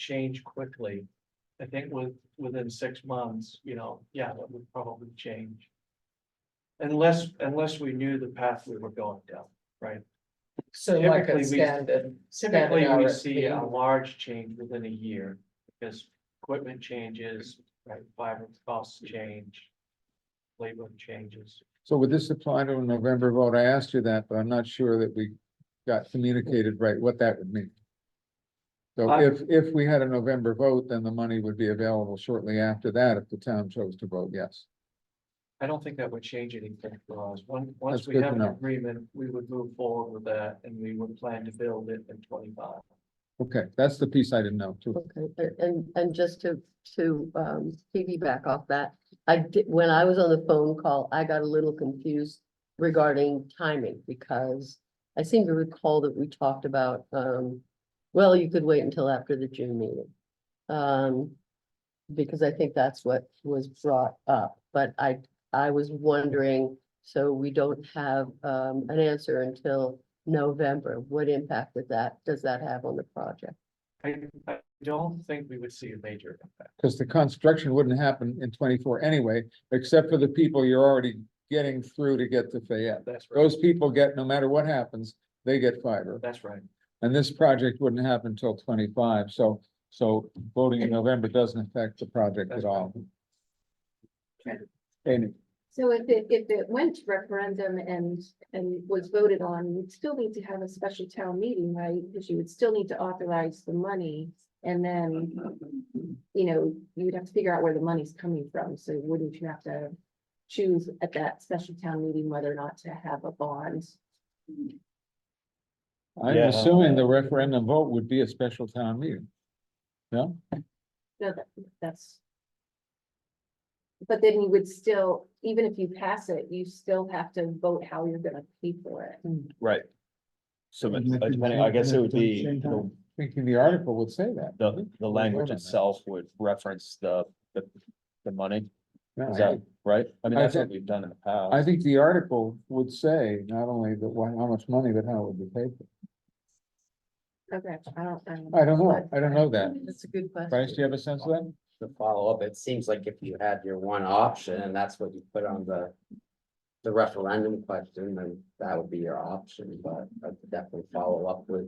change quickly. I think with, within six months, you know, yeah, that would probably change. Unless, unless we knew the path we were going down. So like Typically, a we- standard. standard Typically, we see a RFP. large change within a year because equipment changes, right, fiber costs change. Labor changes. So would this apply to a November vote? I asked you that, but I'm not sure that we got communicated right what that would mean. So I- if, if we had a November vote, then the money would be available shortly after that if the town chose to vote yes. I don't think that would change anything for us. Once, once That's we good to have an know. agreement, we would move forward with that and we would plan to build it in twenty-five. Okay, that's the piece I didn't know too. Okay, a- and, and just to, to um, piggyback off that, I did, when I was on the phone call, I got a little confused regarding timing because I seem to recall that we talked about, um, well, you could wait until after the June meeting. Um, because I think that's what was brought up, but I, I was wondering, so we don't have, um, an answer until November. What impact would that, does that have on the project? I, I don't think we would see a major impact. Because the construction wouldn't happen in twenty-four anyway, except for the people you're already getting through to get to Fayette. That's right. Those people get, no matter what happens, they get fiber. That's right. And this project wouldn't happen until twenty-five, so, so voting in November doesn't affect the project at all. Amy, So if it, if it went to referendum and, and was voted on, you'd still need to have a special town meeting, right? Because you would still need to authorize the money and then, you know, you'd have to figure out where the money's coming from. So wouldn't you have to choose at that special town meeting whether or not to have a bond? I'm Yeah. assuming the referendum vote would be a special town meeting. No, No, that, that's. But then you would still, even if you pass it, you still have to vote how you're gonna pay for it. Hmm. Right. So but, And I uh, think depending, they I guess have it would done the be, same the, time. thinking the article would say that. the, the language on that. itself would reference the, the, the money, No, is I- that right? I mean, I that's what think- we've done in the past. I think the article would say not only that, why, how much money, but how it would be paid for. Okay, I don't, I don't. I don't know, I don't know that. That's a good question. Bryce, do you have a sense of that? to follow up, it seems like if you had your one option and that's what you put on the. The referendum question, then that would be your option, but I would definitely follow up with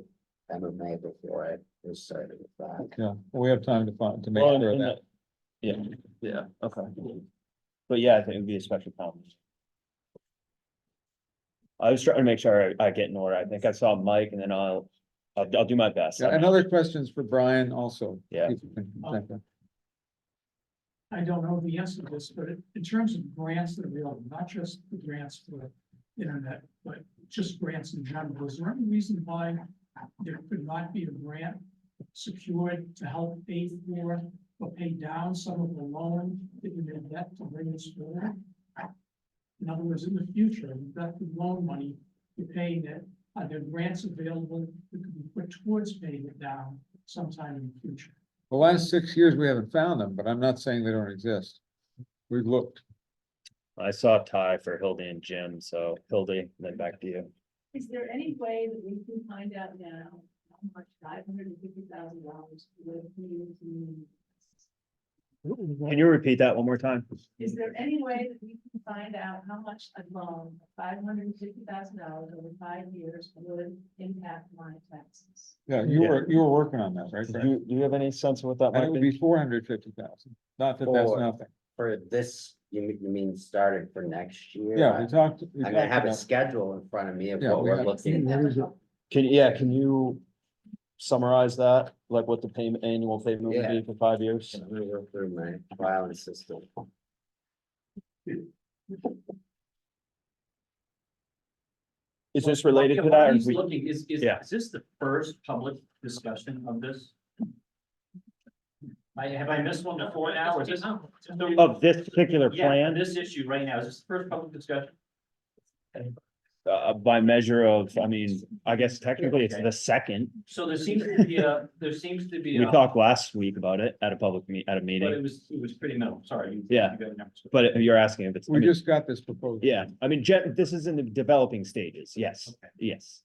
MMA before I was certain of that. Yeah, we have time to find, to make Well, and- sure of and that. that- Yeah, yeah, okay. But yeah, I think it would be a special town. meeting. I was trying to make sure I I get in order. I think I saw Mike and then I'll, I'll, I'll do my best. Yeah, and other questions for Brian also. Yeah. if you can check that. I don't know the answer to this, but in terms of grants that are available, not just the grants for internet, but just grants in general, is there any reason why there could not be a grant secured to help pay for or pay down some of the loan that you made that to bring this forward? In other words, in the future, you've got the loan money, you're paying it, are uh, there grants available that could be put towards paying it down sometime in the future? The last six years, we haven't found them, but I'm not saying they don't exist. We've looked. I saw Ty for Hildy and Jim, so Hildy, then back to you. Is there any way that we can find out now how much five hundred and fifty thousand dollars would mean to me? Can you repeat that one more time? Is there any way that we can find out how much a loan, five hundred and fifty thousand dollars over five years would impact my taxes? Yeah, you Yeah. were, you were working on that, right? Do Brad? you, do you have any sense of what that And it might would be? be four hundred fifty thousand, not that that's Four. nothing. For this, you mean, you mean started for next year? Yeah, we talked. we I'm gonna talked have a about- schedule in front of me of Yeah, what we we're have- looking. Can, yeah, can you summarize that, like what the payment, annual payment would Yeah. be for five years? I'm gonna go through my file and system. Is this related to that? or is we- is, is, Yeah. is this the first public discussion of this? I, have I missed one before now, or is this? Of this particular Yeah, plan, This issue right now, is this the first public discussion? uh, by measure of, I mean, I guess technically it's Okay. the second. So there seems to be a, there seems to be We a, talked last week about it at a public meet, at a but meeting, it was, it was pretty minimal, sorry. you- Yeah. you got the numbers. but you're asking if it's, I We mean, just got this proposal. yeah, I mean, gen- this is in the developing stages, yes, Okay, yes.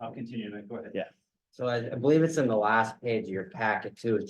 I'll continue, then, go ahead. So I I believe it's in the last page of your packet too, It's